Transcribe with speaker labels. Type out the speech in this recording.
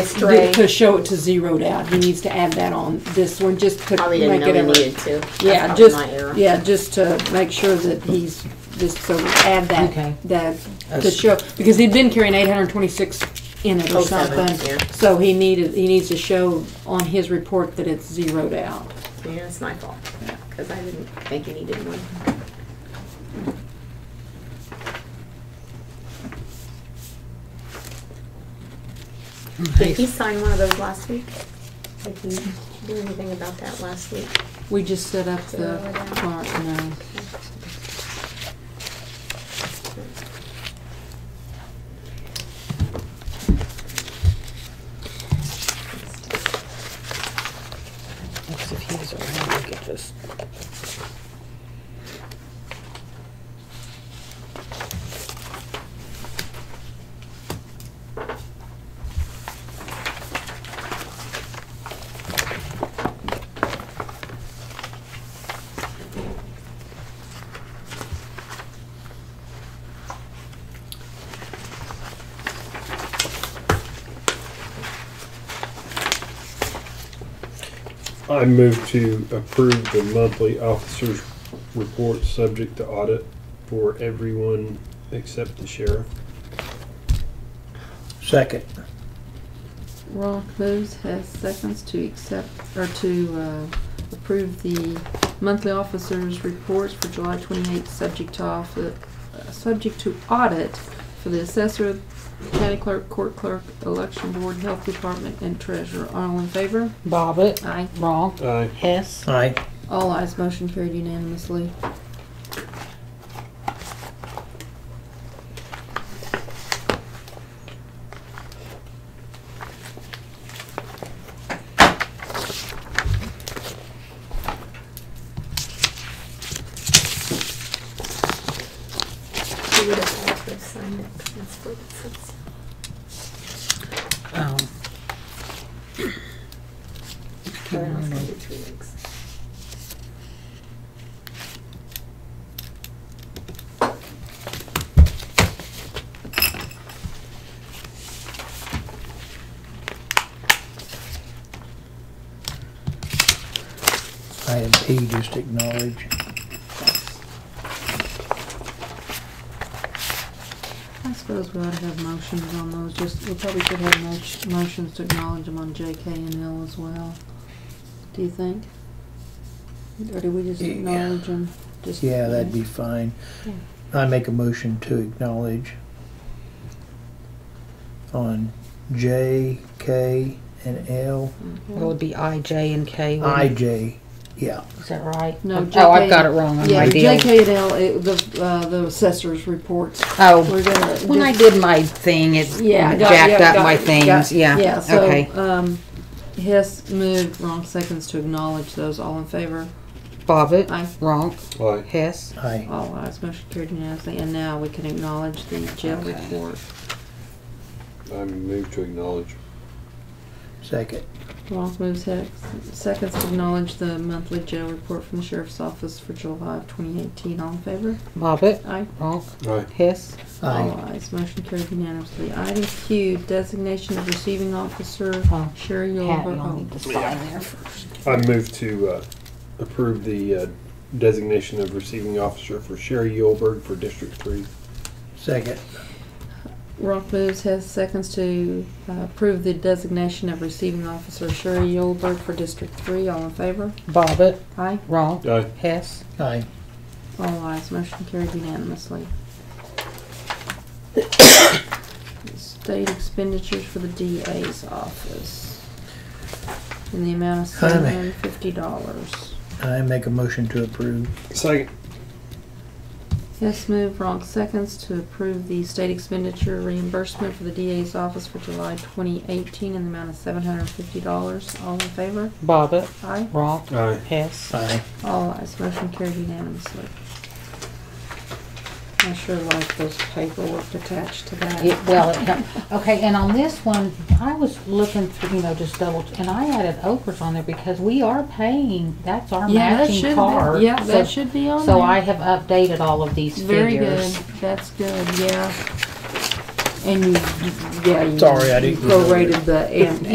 Speaker 1: Stray.
Speaker 2: to show it to zeroed out, he needs to add that on this one, just to
Speaker 1: Probably
Speaker 2: make
Speaker 1: didn't know
Speaker 2: it
Speaker 1: we
Speaker 2: ever.
Speaker 1: needed to. That's
Speaker 2: Yeah,
Speaker 1: probably my error.
Speaker 2: just, yeah, just to make sure that he's, just so add
Speaker 3: Okay.
Speaker 2: that, that, to
Speaker 3: That's-
Speaker 2: show, because he'd been carrying eight hundred and twenty-six in it or
Speaker 1: Oh, seven,
Speaker 2: something.
Speaker 1: yeah.
Speaker 2: So he needed, he needs to show on his report that it's zeroed out.
Speaker 1: Yeah, it's my fault, because I didn't think you needed one. Did he sign one of those last week? Did he do anything about that last week?
Speaker 2: We just set up the uh,
Speaker 1: Zeroed out.
Speaker 2: clerk, no.
Speaker 3: If he was around, we could just.
Speaker 4: I move to approve the monthly officers' report subject to audit for everyone except the sheriff.
Speaker 5: Second.
Speaker 6: Ronk moves, Hess seconds to accept, or to uh, approve the monthly officers' reports for July 28th, subject to, off- uh, subject to audit for the assessor, county clerk, court clerk, election board, health department, and treasurer. All in favor?
Speaker 3: Bobbit,
Speaker 6: Aye.
Speaker 3: Ronk,
Speaker 4: Aye.
Speaker 3: Hess.
Speaker 5: Aye.
Speaker 6: All ayes, motion carried unanimously.
Speaker 1: He would have had to have signed it. That's what it says.
Speaker 3: Um,
Speaker 1: But I was gonna do two weeks.
Speaker 5: Item P, just acknowledge.
Speaker 6: I suppose we ought to have motions on those, just, we probably should have mo- motions to acknowledge them on JK and L as well. Do you think? Or do we just
Speaker 5: Yeah.
Speaker 6: acknowledge them? Just-
Speaker 5: Yeah, that'd be fine. I make a motion to acknowledge on J, K, and L,
Speaker 3: Well, it'd be I, J, and K. wouldn't
Speaker 5: I,
Speaker 3: it?
Speaker 5: J. Yeah,
Speaker 3: Is that right?
Speaker 6: No,
Speaker 3: Oh, I've
Speaker 6: JK
Speaker 3: got it wrong on
Speaker 6: Yeah,
Speaker 3: my
Speaker 6: the
Speaker 3: deal.
Speaker 6: JK and L, it- the, uh, the assessor's reports. We're
Speaker 3: Oh,
Speaker 6: gonna.
Speaker 3: when I
Speaker 6: just-
Speaker 3: did my thing, it
Speaker 6: Yeah, got-
Speaker 3: jacked
Speaker 6: yeah,
Speaker 3: up
Speaker 6: got-
Speaker 3: my
Speaker 6: got-
Speaker 3: things,
Speaker 6: Yeah,
Speaker 3: yeah,
Speaker 6: so,
Speaker 3: okay.
Speaker 6: um, Hess moved, wrong seconds to acknowledge those, all in favor?
Speaker 3: Bobbit,
Speaker 6: Aye.
Speaker 3: Ronk,
Speaker 4: Aye.
Speaker 3: Hess.
Speaker 5: aye.
Speaker 6: All ayes, motion carried unanimously, and now we can acknowledge the jail
Speaker 3: Okay.
Speaker 6: report.
Speaker 4: I move to acknowledge.
Speaker 5: Second.
Speaker 6: Ronk moves Hess, seconds to acknowledge the monthly jail report from the sheriff's office for July of twenty eighteen, all in favor?
Speaker 3: Bobbit,
Speaker 6: Aye.
Speaker 3: Ronk,
Speaker 4: Aye.
Speaker 3: Hess.
Speaker 5: Aye.
Speaker 6: All ayes, motion carried unanimously. Item Q, designation of receiving officer,
Speaker 3: Oh,
Speaker 6: Sherry
Speaker 3: Pat, you'll
Speaker 6: Yulver.
Speaker 3: need to sign there first.
Speaker 4: I move to uh, approve the uh, designation of receiving officer for Sherry Yulberg for District Three.
Speaker 5: Second.
Speaker 6: Ronk moves Hess, seconds to uh, approve the designation of receiving officer Sherry Yulberg for District Three, all in favor?
Speaker 3: Bobbit,
Speaker 6: Aye.
Speaker 3: Ronk,
Speaker 4: Aye.
Speaker 3: Hess.
Speaker 5: Aye.
Speaker 6: All ayes, motion carried unanimously. State expenditures for the DA's office in the amount of seven
Speaker 5: Honey.
Speaker 6: hundred and fifty dollars.
Speaker 5: I make a motion to approve.
Speaker 4: Second.
Speaker 6: Yes, move Ronk seconds to approve the state expenditure reimbursement for the DA's office for July twenty eighteen in the amount of seven hundred and fifty dollars. All in favor?
Speaker 3: Bobbit,
Speaker 6: Aye.
Speaker 3: Ronk,
Speaker 4: Aye.
Speaker 3: Hess.
Speaker 5: Aye.
Speaker 6: All ayes, motion carried unanimously. I sure like those paperwork attached to that.
Speaker 3: Yeah, well, it- okay, and on this one, I was looking through, you know, just double, and I added Oprah's on there because we are paying, that's our
Speaker 6: Yeah, that
Speaker 3: matching
Speaker 6: should
Speaker 3: card.
Speaker 6: Be, yeah,
Speaker 3: So-
Speaker 6: that should be on
Speaker 3: So
Speaker 6: there.
Speaker 3: I have updated all of these
Speaker 6: Very
Speaker 3: figures.
Speaker 6: good. That's good. Yeah.
Speaker 5: And you, yeah, you.
Speaker 6: Sorry, I didn't-
Speaker 5: Prorated the an-